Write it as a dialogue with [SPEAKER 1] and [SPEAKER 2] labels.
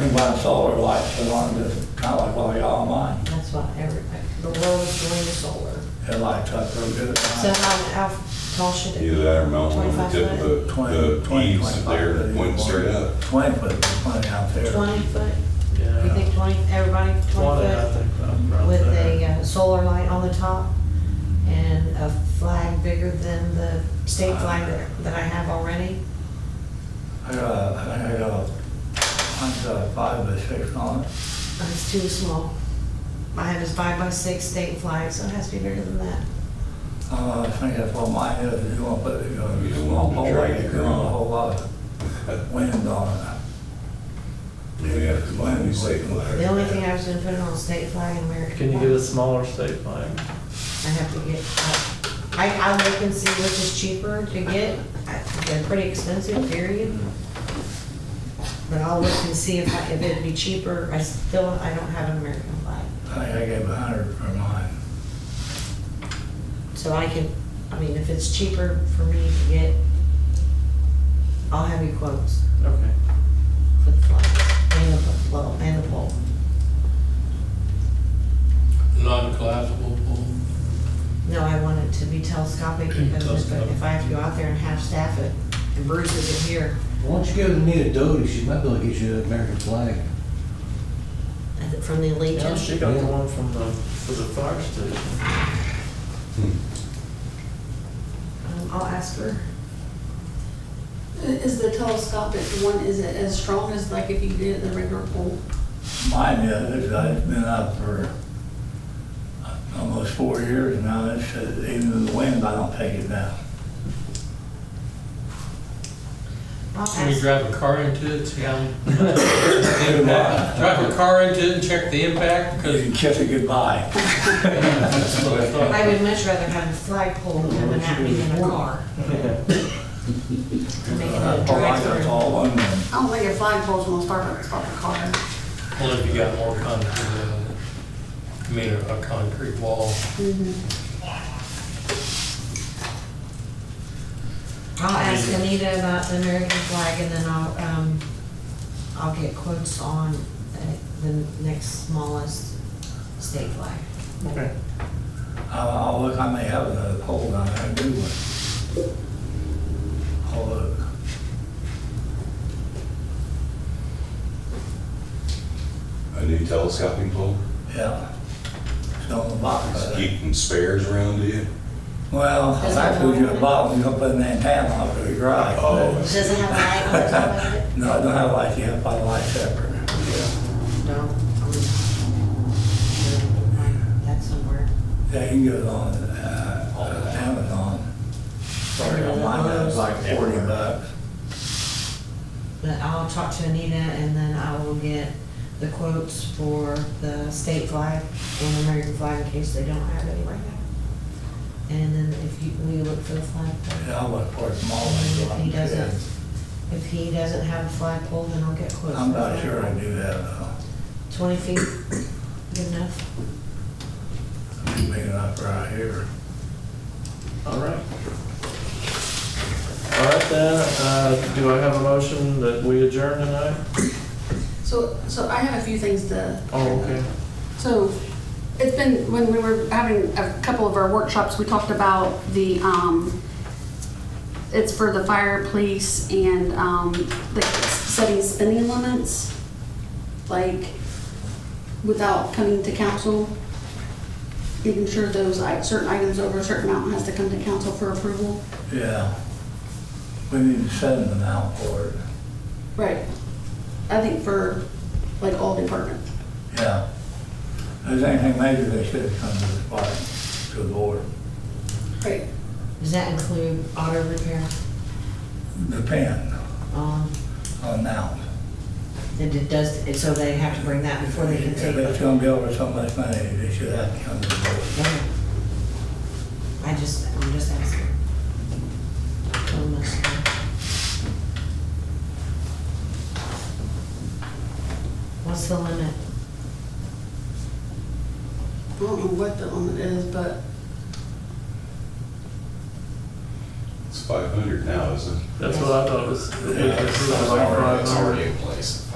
[SPEAKER 1] And my solar lights are on, just kind of like what they are on mine.
[SPEAKER 2] That's why everybody, the world is going to solar.
[SPEAKER 1] It lights up real good at
[SPEAKER 2] So
[SPEAKER 1] night.
[SPEAKER 2] how, how tall should it be?
[SPEAKER 3] Either that or mount one on the
[SPEAKER 2] 25
[SPEAKER 3] tip of
[SPEAKER 2] foot?
[SPEAKER 3] the, the
[SPEAKER 1] 20,
[SPEAKER 3] eaves
[SPEAKER 1] 25
[SPEAKER 3] there,
[SPEAKER 1] feet.
[SPEAKER 3] pointing straight up.
[SPEAKER 1] Twenty foot, is plenty out there.
[SPEAKER 2] Twenty foot? You
[SPEAKER 4] Yeah,
[SPEAKER 2] think twenty, everybody
[SPEAKER 4] twenty,
[SPEAKER 2] twenty
[SPEAKER 4] I
[SPEAKER 2] foot?
[SPEAKER 4] think, uh, I'm right
[SPEAKER 2] With a
[SPEAKER 4] there.
[SPEAKER 2] uh, solar light on the top and a flag bigger than the state
[SPEAKER 4] Uh,
[SPEAKER 2] flag that- that I have already?
[SPEAKER 1] I got, a- I think I got, a- I got a five by six on it.
[SPEAKER 2] Uh, It's too small. I have this five by six state flag, so it has to be bigger than that.
[SPEAKER 1] Uh, I think that's what mine is, if you want to put it, you know,
[SPEAKER 3] You
[SPEAKER 1] you
[SPEAKER 3] don't want
[SPEAKER 1] want
[SPEAKER 3] to
[SPEAKER 1] a whole
[SPEAKER 3] drag
[SPEAKER 1] lot,
[SPEAKER 3] it
[SPEAKER 1] you want a whole lot of
[SPEAKER 3] around.
[SPEAKER 1] wind on
[SPEAKER 3] Yeah, it's mine, we say flag.
[SPEAKER 2] The only thing I was gonna put it on state flag and American.
[SPEAKER 4] Can you
[SPEAKER 2] flag.
[SPEAKER 4] get a smaller state flag?
[SPEAKER 2] I have to get, uh, I, I'll look and see which is cheaper to get. I- They're pretty expensive, period. But I'll look and see if, I- if it'd be cheaper. I still, I don't have an American flag.
[SPEAKER 1] it. I think I gave a hundred for mine.
[SPEAKER 2] So I can, I mean, if it's cheaper for me to get, I'll have you quotes
[SPEAKER 4] Okay.
[SPEAKER 2] for the flag and the pole, and the pole.
[SPEAKER 5] Non-collapsible pool.
[SPEAKER 2] No, I want it to be telescopic because if I- if I have to go out there and half staff it, and Bruce isn't here,
[SPEAKER 6] Why don't you go to Nita Doty, she might be able to get you an American flag.
[SPEAKER 2] uh, from the
[SPEAKER 4] Yeah,
[SPEAKER 2] Legion.
[SPEAKER 4] she got the one from the, for the fire station.
[SPEAKER 2] Um, I'll ask her.
[SPEAKER 7] Is the telescopic one, is it as strong as like if you did the regular pole?
[SPEAKER 1] Mine is, it's- it's been up for uh, almost four years now, it's, uh, even in the wind, I don't take it down.
[SPEAKER 2] I'll ask.
[SPEAKER 5] Can you drive a car into it, see how?
[SPEAKER 1] Too much.
[SPEAKER 5] Impact. Drive a car into it and check the impact,
[SPEAKER 1] You
[SPEAKER 5] because
[SPEAKER 1] can kiss it goodbye.
[SPEAKER 5] that's what I thought.
[SPEAKER 2] I would much rather have a flagpole coming at me than a car. To make it a
[SPEAKER 1] Oh, I got
[SPEAKER 2] drive-through.
[SPEAKER 1] all on them.
[SPEAKER 7] I don't think a flagpole's gonna start, start a car.
[SPEAKER 5] Well, if you got more concrete, uh, I mean, a a concrete wall.
[SPEAKER 7] Mm-hmm.
[SPEAKER 2] I'll ask Anita about the American flag and then I'll, um, I'll get quotes on uh, the next smallest state flag.
[SPEAKER 4] Okay.
[SPEAKER 1] I'll, I'll look, I may have another pole down there, I do one. I'll look.
[SPEAKER 3] A new telescoping pole,
[SPEAKER 1] Yeah. It's on the box.
[SPEAKER 3] just keeping spares around you.
[SPEAKER 1] Well,
[SPEAKER 2] Does
[SPEAKER 1] I
[SPEAKER 2] it
[SPEAKER 1] told you
[SPEAKER 2] have-
[SPEAKER 1] a bottle, you're gonna put an antenna on it, you're right.
[SPEAKER 3] Oh.
[SPEAKER 2] Does it have a light on the top of it?
[SPEAKER 1] No, I don't have a light, you have to buy a light separate.
[SPEAKER 2] No. Um, That's somewhere.
[SPEAKER 1] Yeah, you can get it on, uh, uh, Amazon. Sorry, on mine, that's like forty bucks.
[SPEAKER 2] But I'll talk to Anita and then I will get the quotes for the state flag and American flag in case they don't have any right now. And then if you, we look for the flag. pole.
[SPEAKER 1] Yeah, I'll look for it tomorrow.
[SPEAKER 2] And
[SPEAKER 1] so
[SPEAKER 2] If
[SPEAKER 1] I'm
[SPEAKER 2] he doesn't,
[SPEAKER 1] sure.
[SPEAKER 2] if he doesn't have a flag pole, then I'll get quotes.
[SPEAKER 1] I'm
[SPEAKER 2] for
[SPEAKER 1] not
[SPEAKER 2] that.
[SPEAKER 1] sure I do that, though.
[SPEAKER 2] Twenty feet, good enough.
[SPEAKER 1] Big enough right here.
[SPEAKER 4] All right. All right then, uh, do I have a motion that we adjourn tonight?
[SPEAKER 7] So, so I have a few things to.
[SPEAKER 4] Oh, okay.
[SPEAKER 7] So it's been, when we were having a couple of our workshops, we talked about the, um, it's for the fire, police, and, um, the setting spending limits, like, without coming to council. Making sure those, i- certain items over a certain amount has to come to council for approval.
[SPEAKER 1] Yeah. We need to send them out for it.
[SPEAKER 7] Right. I think for, like, all departments.
[SPEAKER 1] Yeah. If there's anything major, they should come to the party, to the board.
[SPEAKER 7] Right.
[SPEAKER 2] Does that include auto repair?
[SPEAKER 1] Depend
[SPEAKER 2] Um,
[SPEAKER 1] on now.
[SPEAKER 2] it it does, and so they have to bring that before they can
[SPEAKER 1] If
[SPEAKER 2] take.
[SPEAKER 1] it's gonna be over so much money, they should have to come to the board.
[SPEAKER 2] Yeah. I just, I'm just asking. Don't mess it up. What's the limit?
[SPEAKER 7] I don't know what the limit is, but
[SPEAKER 3] It's five hundred now, isn't it?
[SPEAKER 4] That's what I thought was.
[SPEAKER 1] Yeah,
[SPEAKER 3] It's
[SPEAKER 1] it's
[SPEAKER 3] already in place.